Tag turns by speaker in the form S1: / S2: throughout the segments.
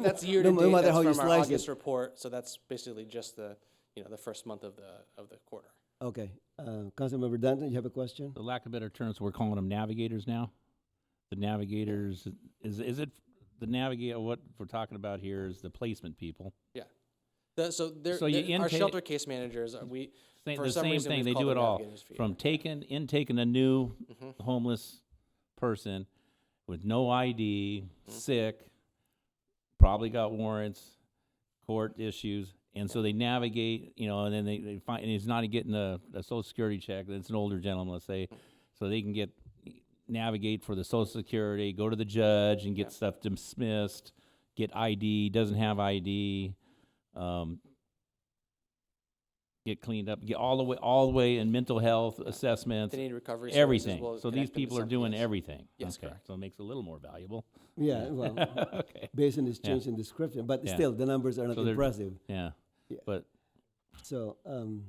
S1: That's year to
S2: No- no
S1: date,
S2: matter
S1: that's
S2: how you
S1: from our
S2: slice
S1: August
S2: it.
S1: report, so that's basically just the, you know, the first month of the, of the quarter.
S2: Okay, uh, Councilmember Danton, you have a question?
S3: the lack of better terms, we're calling them navigators now. The navigators is is it the navigator? What we're talking about here is the placement people.
S1: Yeah. The- so there,
S3: So you
S1: there- our
S3: indicate-
S1: shelter case managers, are- we,
S3: Same,
S1: For
S3: the
S1: some
S3: same
S1: reason,
S3: thing.
S1: we've
S3: They
S1: called
S3: do it
S1: them
S3: all
S1: navigators for Mm-hmm.
S3: from
S1: years.
S3: taking in taking a new homeless person with no ID,
S1: Mm-hmm.
S3: sick, probably got warrants, court issues, and so they navigate. You know, and then they, they find and he's not getting a, a social security check. It's an older gentleman, let's say, so they can get navigate for the social security, go to the judge and get stuff dismissed, get ID, doesn't have ID. Um, get cleaned up, get all the way, all the way in mental health assessments,
S1: they need recovery services.
S3: everything.
S1: We'll
S3: so
S1: connect
S3: these
S1: them to
S3: people are
S1: something
S3: doing
S1: else.
S3: everything.
S1: Yes,
S3: okay.
S1: correct.
S3: So it makes it a little more valuable.
S2: Yeah, well,
S3: okay.
S2: based on this
S3: Yeah.
S2: change in description, but
S3: Yeah.
S2: still, the numbers are not
S3: So they're-
S2: impressive.
S3: Yeah.
S2: Yeah.
S3: But
S2: So, um,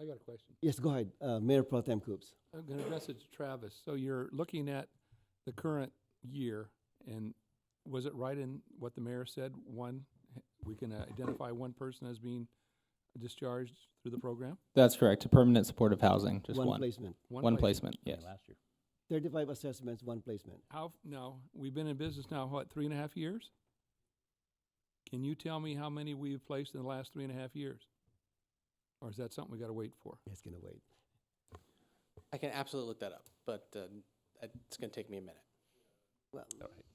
S4: I got a question.
S2: yes, go ahead, uh, Mayor Pro Tem Coops.
S4: I'm going to address it to Travis. So you're looking at the current year, and was it right in what the mayor said? One, we can uh, identify one person as being discharged through the program?
S5: That's correct. Permanent supportive housing, just one.
S2: One placement,
S5: One
S4: place.
S5: placement,
S3: yeah,
S5: yes.
S3: last year.
S2: thirty-five assessments, one placement.
S4: How, f- now, we've been in business now, what, three and a half years? Can you tell me how many we've placed in the last three and a half years? Or is that something we got to wait for?
S2: It's gonna wait.
S1: I can absolutely look that up, but um, it's going to take me a minute.
S2: Well,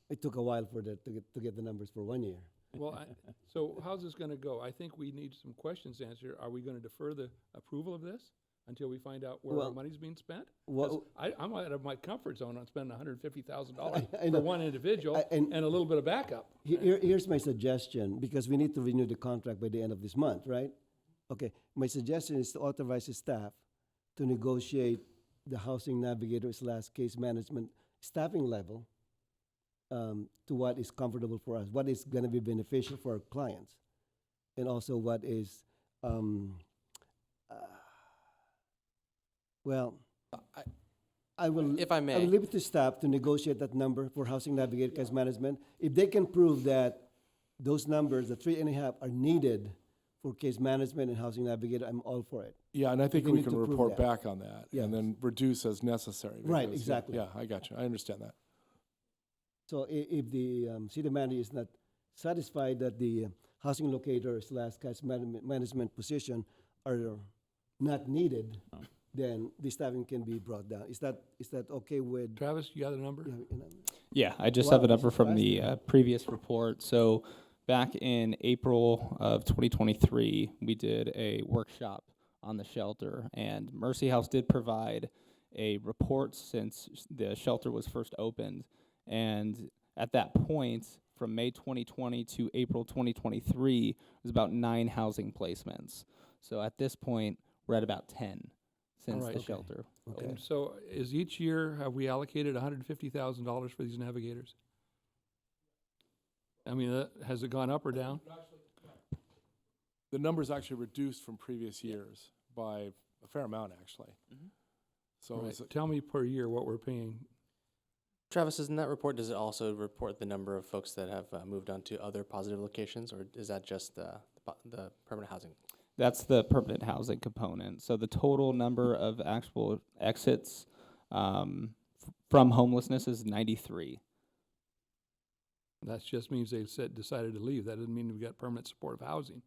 S2: it took a while for the, to get, to get the numbers for one year.
S4: Well, I, so how's this gonna go? I think we need some questions answered. Are we gonna defer the approval of this until we find out where
S2: Well,
S4: our money's being spent? 'Cause
S2: Well,
S4: I, I'm out of my comfort zone on spending hundred and fifty thousand dollars
S2: I know.
S4: for one individual
S2: I- and-
S4: and a little bit of backup.
S2: he- here, here's my suggestion, because we need to renew the contract by the end of this month, right? Okay, my suggestion is to authorize the staff to negotiate the housing navigator slash case management staffing level um, to what is comfortable for us, what is gonna be beneficial for our clients, and also what is, um, uh, well,
S1: Uh, I-
S2: I will.
S1: If I
S2: I
S1: may.
S2: will leave it to staff to negotiate that number for housing navigator case management. If they can prove that those numbers, the three and a half, are needed for case management and housing navigator, I'm all for it.
S6: Yeah, and I think
S2: They
S6: we
S2: need
S6: can
S2: to prove
S6: report
S2: that.
S6: back on that
S2: Yes.
S6: and then reduce as necessary.
S2: Right,
S6: because-
S2: exactly.
S6: Yeah, I got you. I understand that.
S2: So i- if the um, city manager is not satisfied that the uh, housing locator slash case management, management position are not needed, then the staffing can be brought down. Is that, is that okay with?
S4: Travis, you got the number?
S2: you know, you know?
S5: Yeah, I just
S2: Wow,
S5: have it
S2: this
S5: up
S2: is
S5: from
S2: last
S5: the
S2: year.
S5: uh, previous report. So back in April of 2023, we did a workshop on the shelter, and Mercy House did provide a report since s- the shelter was first opened. And at that point, from May 2020 to April 2023, it was about nine housing placements. So at this point, we're at about 10 since
S4: right,
S5: the
S4: okay.
S5: shelter.
S2: Okay.
S4: And so is each year, have we allocated hundred and fifty thousand dollars for these navigators? I mean, uh, has it gone up or down?
S6: The number's actually reduced from previous years by a fair amount, actually.
S2: Mm-hmm.
S6: So
S4: Right.
S6: is it-
S4: Tell me per year what we're paying
S1: Travis, does not that report, does it also report the number of folks that have uh, moved on to other positive locations, or is that just the, the po- the permanent housing?
S5: That's the permanent housing component. So the total number of actual exits um, f- from homelessness is 93.
S4: That just means they said, decided to leave. That doesn't mean we've got permanent supportive housing,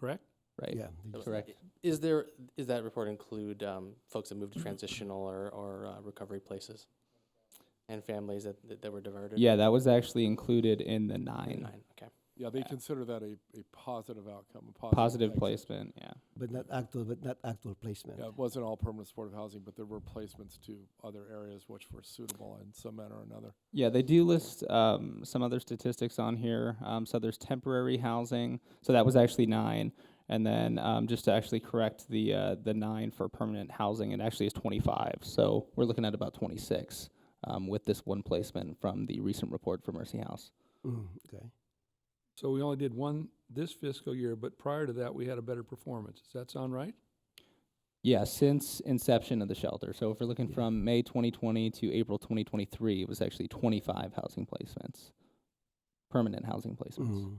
S4: correct?
S5: Right.
S2: Yeah. they just-
S5: Correct.
S1: Is there, is that report include um, folks that moved
S5: Mm-hmm.
S1: to transitional or, or uh, recovery places? And families that, that- that were diverted?
S5: Yeah, that was actually included in the nine
S1: Nine, okay.
S6: yeah, they consider that a, a positive outcome, a positive.
S5: positive
S6: exit.
S5: placement. Yeah.
S2: But not actual, but not actual placement.
S6: Yeah, it wasn't all permanent supportive housing, but there were placements to other areas which were suitable in some manner or another.
S5: Yeah, they do list um, some other statistics on here. Um, so there's temporary housing. So that was actually nine. And then um, just to actually correct the uh, the nine for permanent housing, it actually is 25. So we're looking at about 26 um, with this one placement from the recent report for Mercy House.
S2: Mm, okay.
S4: So we only did one this fiscal year, but prior to that, we had a better performance. Does that sound right?
S5: Yeah, since inception of the shelter. So if we're looking from May 2020 to April 2023, it was actually 25 housing placements. permanent housing placements.
S2: Mhm.